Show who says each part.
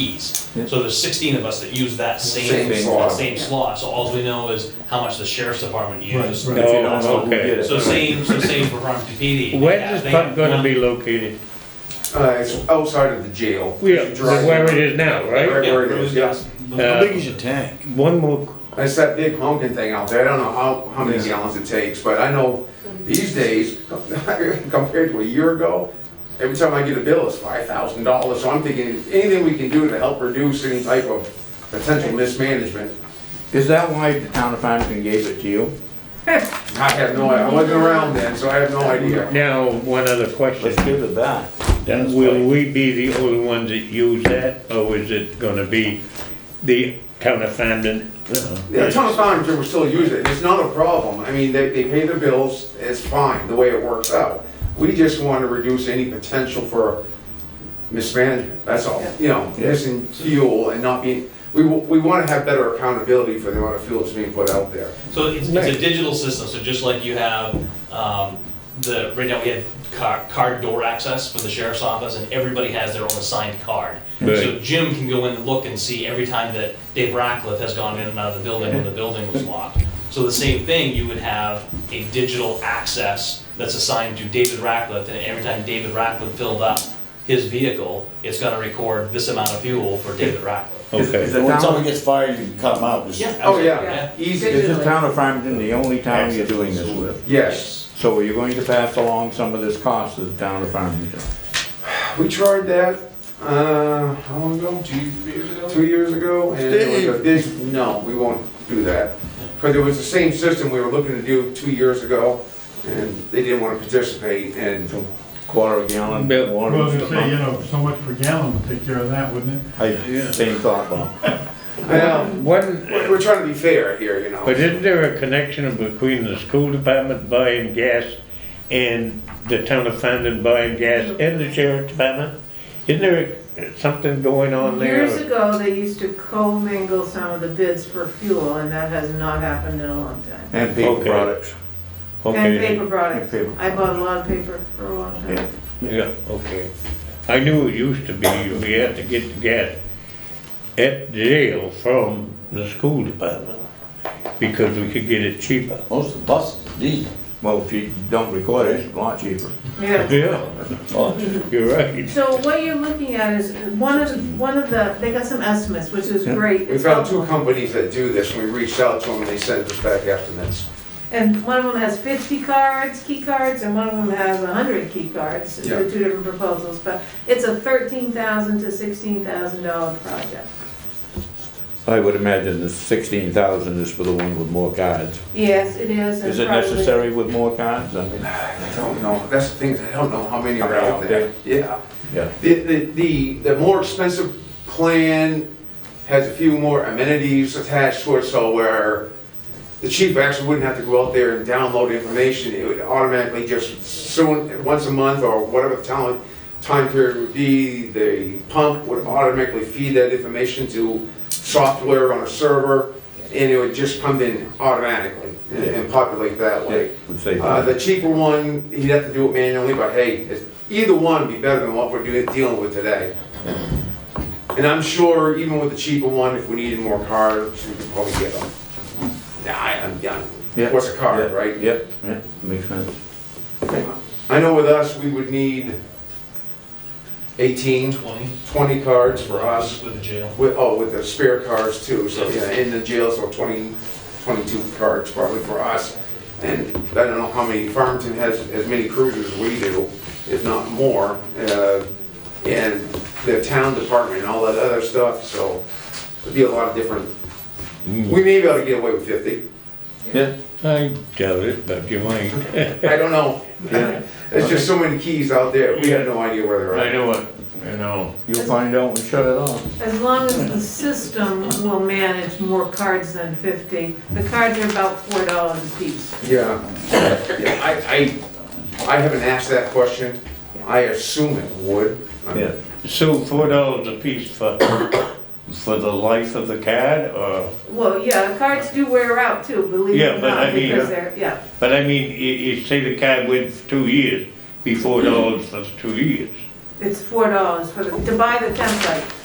Speaker 1: keys.
Speaker 2: Yeah.
Speaker 1: So there's sixteen of us that use that same,
Speaker 2: Same
Speaker 1: that
Speaker 3: slot.
Speaker 1: same slot, so all we know is how much the sheriff's department uses.
Speaker 2: If you don't
Speaker 3: Oh,
Speaker 2: know who
Speaker 3: okay.
Speaker 2: did it.
Speaker 1: So same, so same for Farmington PD.
Speaker 4: Where's this pump gonna be located?
Speaker 3: Uh, it's outside of the jail.
Speaker 4: Yeah,
Speaker 3: You drive
Speaker 4: where
Speaker 3: in.
Speaker 4: it is now, right?
Speaker 3: Right where it is, yes.
Speaker 2: How
Speaker 4: Uh,
Speaker 2: big is your tank?
Speaker 4: One more,
Speaker 3: It's that big honking thing out there, I don't know how, how many
Speaker 2: Yeah.
Speaker 3: gallons it takes, but I know these days, compared to a year ago, every time I get a bill, it's five thousand dollars, so I'm thinking, anything we can do to help reduce any type of potential mismanagement,
Speaker 2: Is that why the town of Farmington gave it to you?
Speaker 3: I have no, I wasn't around then, so I have no idea.
Speaker 4: now, one other question.
Speaker 2: Let's give it back. Dennis,
Speaker 4: Will we be the only ones that use that, or is it gonna be the town of Fandon?
Speaker 3: The town of Farmington will still use it, it's not a problem, I mean, they, they pay their bills, it's fine, the way it works out. We just want to reduce any potential for mismanagement, that's all, you know, missing fuel and not being, we, wa- we want to have better accountability for the amount of fuel that's being put out there.
Speaker 1: So it's, it's a digital system, so just like you have, um, the, right now we have car, card door access for the sheriff's office, and everybody has their own assigned card. So
Speaker 4: Right.
Speaker 1: Jim can go in and look and see every time that Dave Ratcliffe has gone in and out of the building when the building was locked. So the same thing, you would have a digital access that's assigned to David Ratcliffe, and every time David Ratcliffe filled up his vehicle, it's gonna record this amount of fuel for David Ratcliffe.
Speaker 2: Is- is
Speaker 4: Okay,
Speaker 2: the
Speaker 5: When someone
Speaker 2: town,
Speaker 5: gets fired, you can cut them out. just-
Speaker 1: Yeah,
Speaker 3: Oh, yeah,
Speaker 1: absolutely,
Speaker 3: easy,
Speaker 2: is the town of Farmington the only town you're doing this with?
Speaker 3: yes.
Speaker 2: So are you going to pass along some of this cost to the town of Farmington?
Speaker 3: We tried that, uh, how long ago? Two years ago. Two years ago, and it was a big, no, we won't do that. Because it was the same system we were looking to do two years ago, and they didn't want to participate, and
Speaker 2: Quarter of a gallon
Speaker 4: Bill.
Speaker 2: water?
Speaker 6: Well, I was
Speaker 2: or
Speaker 6: gonna say, you
Speaker 2: something?
Speaker 6: know, so much per gallon would take care of that, wouldn't it?
Speaker 2: I, same thought, Bob.
Speaker 3: Well,
Speaker 4: one,
Speaker 3: we're we're trying to be fair here, you
Speaker 4: but
Speaker 3: know.
Speaker 4: isn't there a connection between the school department buying gas and the town of Fandon buying gas
Speaker 7: Mm-hmm.
Speaker 4: and the sheriff department? Isn't there something going on there?
Speaker 7: Years ago, they used to co-mingle some of the bids for fuel, and that has not happened in a long time.
Speaker 2: And paper
Speaker 4: Okay.
Speaker 2: products.
Speaker 7: And
Speaker 4: Okay,
Speaker 7: paper products.
Speaker 2: And paper.
Speaker 7: I bought a lot of paper for a long
Speaker 2: Yeah.
Speaker 7: time.
Speaker 4: yeah, okay. I knew it used to be, we had to get the gas at jail from the school department because we could get it cheaper.
Speaker 5: Most of the buses, are diesel.
Speaker 2: Well, if you don't record it, it's a lot cheaper.
Speaker 7: Yeah.
Speaker 4: Yeah,
Speaker 5: Well,
Speaker 4: you're right.
Speaker 7: So what you're looking at is, one of, one of the, they got some estimates, which is
Speaker 2: Yeah.
Speaker 7: great.
Speaker 3: We found two companies that do this, and we reached out to them, and they sent us back estimates.
Speaker 7: And one of them has fifty cards, key cards, and one of them has hundred key cards,
Speaker 3: Yeah.
Speaker 7: the two different proposals, but it's a thirteen thousand to sixteen thousand dollar project.
Speaker 2: I would imagine the sixteen thousand is for the one with more cards.
Speaker 7: Yes, it is. and
Speaker 2: Is it
Speaker 7: probably-
Speaker 2: necessary with more cards? I mean,
Speaker 3: I don't know, that's the thing, I don't know how many are out there. Yeah.
Speaker 2: yeah.
Speaker 3: The, the, the, the more expensive plan has a few more amenities attached to it, so where the chief actually wouldn't have to go out there and download information, it would automatically just soon, once a month or whatever the time, time period would be, the pump would automatically feed that information to software on a server, and it would just come in automatically and- and populate that way.
Speaker 2: Would say.
Speaker 3: Uh, the cheaper one, he'd have to do it manually, but hey, it's- either one would be better than what we're doing, dealing with today. And I'm sure even with the cheaper one, if we needed more cars, we could probably get them. Nah, I- I'm done.
Speaker 2: Yeah,
Speaker 3: What's a car,
Speaker 2: yeah,
Speaker 3: right?
Speaker 2: Yep, yeah, makes sense.
Speaker 3: I know with us, we would need 18,
Speaker 1: twenty
Speaker 3: 20 cards for us,
Speaker 1: with the jail.
Speaker 3: with, oh, with the spare cars too, so, yeah, in the jail, so 20, 22 cards probably for us. And I don't know how many, Farmington has as many cruisers as we do, if not more, uh, and the town department and all that other stuff, so it'd be a lot of different.
Speaker 2: Mm.
Speaker 3: We may be able to get away with 50,
Speaker 2: Yeah,
Speaker 4: I doubt it, but you might.
Speaker 3: I don't know.
Speaker 2: yeah.
Speaker 3: There's just so many keys out there, we have no idea where they're
Speaker 4: I
Speaker 3: at.
Speaker 4: know it, you know.
Speaker 2: You'll find out when we shut it off.
Speaker 7: As long as the system will manage more cards than 50, the cards are about $4 a piece.
Speaker 3: Yeah, yeah, I, I, I haven't asked that question, I assume it would.
Speaker 2: Yeah.
Speaker 4: So four dollars a piece for, for the life of the card, or,
Speaker 7: Well, yeah, cards do wear out too, believe
Speaker 4: Yeah,
Speaker 7: it or
Speaker 4: but I
Speaker 7: not,
Speaker 4: mean-
Speaker 7: because they're, yeah.
Speaker 4: but I mean, you, you say the card went for two years, be four dollars for two years.
Speaker 7: It's $4 for, the- to buy the template.